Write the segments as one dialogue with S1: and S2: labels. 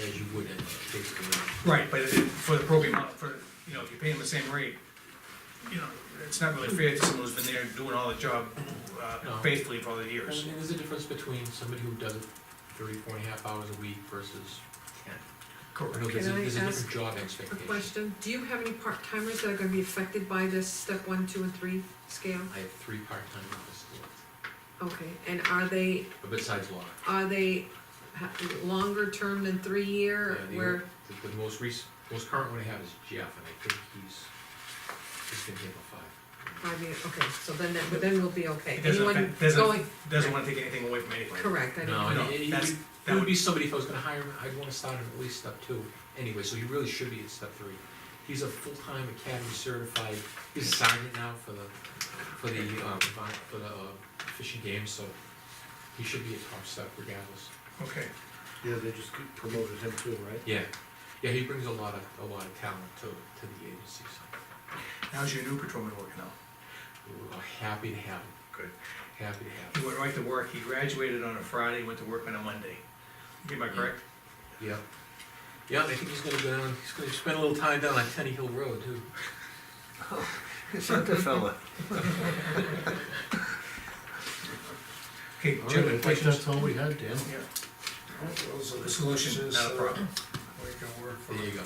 S1: as you would at fixed rate.
S2: Right, but if- for the program, for, you know, if you pay them the same rate, you know, it's not really fair to someone who's been there doing all the job uh,
S1: No.
S2: faithfully for all the years.
S1: And and there's a difference between somebody who does it thirty, four and a half hours a week versus ten. I know
S2: Correct.
S1: there's a,
S3: Can I
S1: there's a
S3: ask
S1: different job
S3: A
S1: expectation.
S3: question, do you have any part-timers that are gonna be affected by this step one, two, and three scale?
S1: I have three part-time office staff,
S3: Okay, and are they,
S1: but besides law.
S3: are they ha- longer term than three year,
S1: Yeah, the-
S3: where,
S1: The, the most recent, most current one I have is Jeff, and I think he's, he's gonna handle five.
S3: five year, okay, so then that, but then we'll be okay.
S2: It doesn't,
S3: Anyone
S2: affect-
S3: going,
S2: doesn't, doesn't wanna take anything away from anybody.
S3: correct, I
S1: No,
S3: know,
S1: and
S2: No,
S1: it- it-
S2: that's-
S1: it
S2: that
S1: would
S2: would-
S1: be somebody if I was gonna hire him, I'd wanna start him at least step two, anyway, so he really should be at step three. He's a full-time academy certified, he's a sergeant now for the, for the, um, vi- for the uh, fishing game, so he should be a top step regardless.
S2: Okay,
S4: Yeah, they just promoted him too, right?
S1: Yeah, yeah, he brings a lot of, a lot of talent to, to the agency, so
S2: how's your new patrolman working out?
S1: we're happy to have him,
S2: Good.
S1: happy to have him.
S2: He went right to work, he graduated on a Friday, went to work on a Monday. Am I correct?
S1: Yeah, yeah, I think he's gonna go down, he's gonna spend a little time down on Tenny Hill Road too.
S4: Santa fella.
S2: Okay,
S4: All
S2: Jim,
S4: right, I
S2: any
S4: think that's
S2: questions?
S4: all we had, Dan.
S2: Yeah,
S5: The
S2: solution, not a problem.
S5: We can work for.
S1: There you go.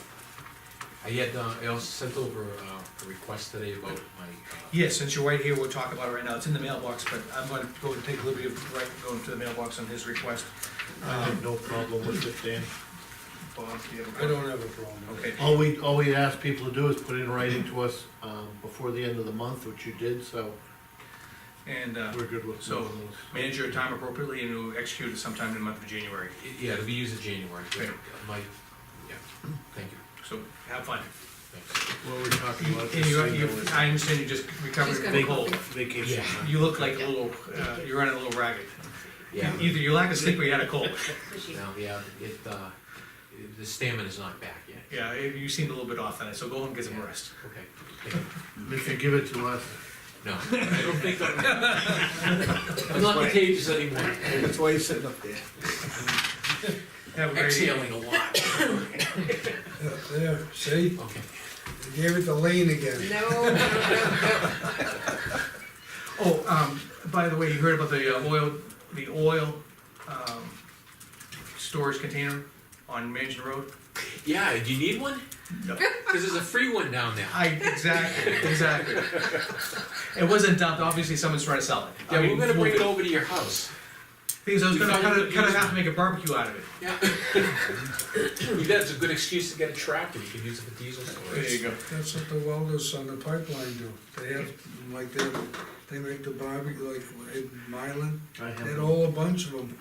S1: I had, uh, I also sent over, uh, a request today about my, uh,
S2: Yeah, since you're right here, we'll talk about it right now. It's in the mailbox, but I'm gonna go and take a liberty of right, going to the mailbox on his request.
S4: I have no problem with it, Dan.
S2: Bob, do you have a
S5: I don't have a problem. with it.
S2: Okay,
S4: All we, all we ask people to do is put in writing to us, um, before the end of the month, which you did, so
S2: and, uh,
S4: we're good with
S2: So-
S4: those.
S2: manage your time appropriately and we'll execute it sometime in the month of January.
S1: it- yeah, it'll be used in January, but
S2: Okay.
S1: my, yeah, thank you,
S2: So have fun.
S1: thanks.
S4: What we're talking about.
S2: And you, you, I understand you just recovered
S3: Just
S2: from
S3: got
S2: a
S3: a
S2: cold.
S3: cold.
S4: Vacation.
S1: Yeah.
S2: You look like a little, uh, you're running a little ragged.
S1: Yeah,
S2: Either you lack of sleep or you had a cold.
S1: no, yeah, it, uh, the stamina's not back yet.
S2: Yeah, you seemed a little bit off on it, so go home and get some rest.
S1: Okay, thank you.
S4: If you give it to us,
S1: no, I don't think I'm, I'm not contagious anymore,
S5: That's why he's sitting up there.
S2: Have a great evening.
S1: exhaling a lot,
S5: Yeah, There, see,
S1: okay.
S5: They gave it to Lean again.
S3: no, no, no, no.
S2: Oh, um, by the way, you heard about the uh, oil, the oil, um, storage container on Mansion Road?
S1: Yeah, do you need one?
S2: No.
S1: Cause there's a free one down there.
S2: I, exactly, exactly. It wasn't dumped, obviously someone's trying to sell it. I
S1: Yeah,
S2: mean,
S1: we're gonna bring it
S2: we'll-
S1: over to your house.
S2: Things, I was
S1: We
S2: gonna,
S1: found
S2: kind
S1: it
S2: of, kind of
S1: used.
S2: have to make a barbecue out of it.
S1: Yeah. That's a good excuse to get a tractor, you can use it for diesel storage.
S2: go.
S5: That's what the welders on the pipeline do. They have, like, they, they make the barbecue, like, in Mylan,
S4: I
S5: they had
S4: have,
S5: all a bunch of them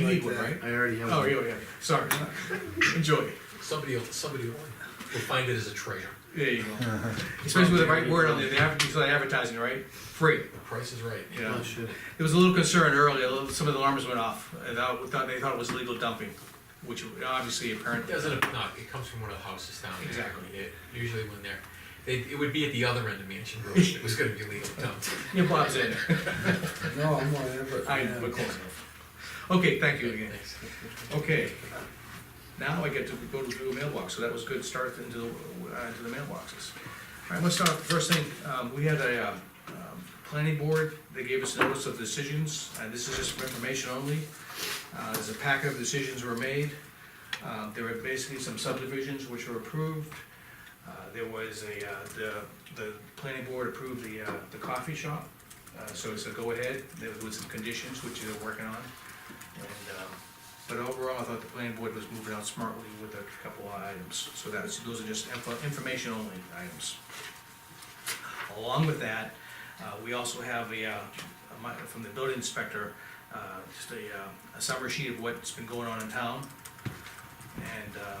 S2: You need
S5: like
S2: one,
S5: that.
S2: right?
S4: I already have.
S2: Oh, yeah, yeah, sorry, enjoy it,
S1: Somebody will, somebody will, will find it as a treasure.
S2: there you go. Especially with the right word on there, they have, it's like advertising, right? Free,
S1: The price is right.
S2: you know?
S4: Oh, shit.
S2: There was a little concern earlier, a little- some of the alarms went off, and that- thought- they thought it was legal dumping, which obviously
S1: It
S2: apparently,
S1: doesn't, no, it comes from one of the houses down there.
S2: Exactly.
S1: It- Usually when they're, they, it would be at the other end of Mansion Road, it was gonna be legal dumped.
S2: your Bob's in,
S5: No, I'm on it, but.
S2: I,
S5: yeah.
S2: we're close enough. Okay, thank you again,
S1: Thanks.
S2: okay. Now I get to go to the mailbox, so that was good start into, the- uh, into the mailboxes. All right, let's start, first thing, um, we had a, um, um, planning board, they gave us notice of decisions, uh, this is just for information only. Uh, there's a packet of decisions were made, uh, there were basically some subdivisions which were approved. Uh, there was a, uh, the, the planning board approved the, uh, the coffee shop, uh, so it's a go-ahead, there was some conditions which they're working on. And, um, but overall, I thought the planning board was moving out smartly with a couple of items, so that's, those are just info, information only items. Along with that, uh, we also have a, uh, a mi- from the building inspector, uh, just a, uh, a summary sheet of what's been going on in town. And, uh,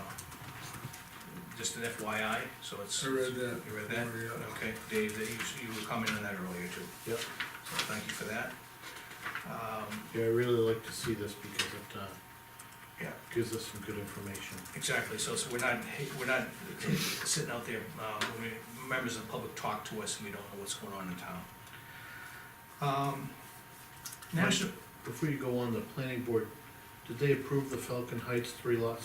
S2: just an FYI, so it's.
S5: I read that. Oh,
S2: You read that?
S5: Yeah.
S2: Okay, Dave, that you, you were commenting on that earlier too,
S4: Yep.
S2: so thank you for that. Um,
S4: Yeah, I really like to see this because it, uh,
S2: Yeah.
S4: gives us some good information.
S2: Exactly, so, so we're not, we're not sitting out there, uh, when we- members of the public talk to us and we don't know what's going on in town. Um, National,
S4: Before you go on, the planning board, did they approve the Falcon Heights three lot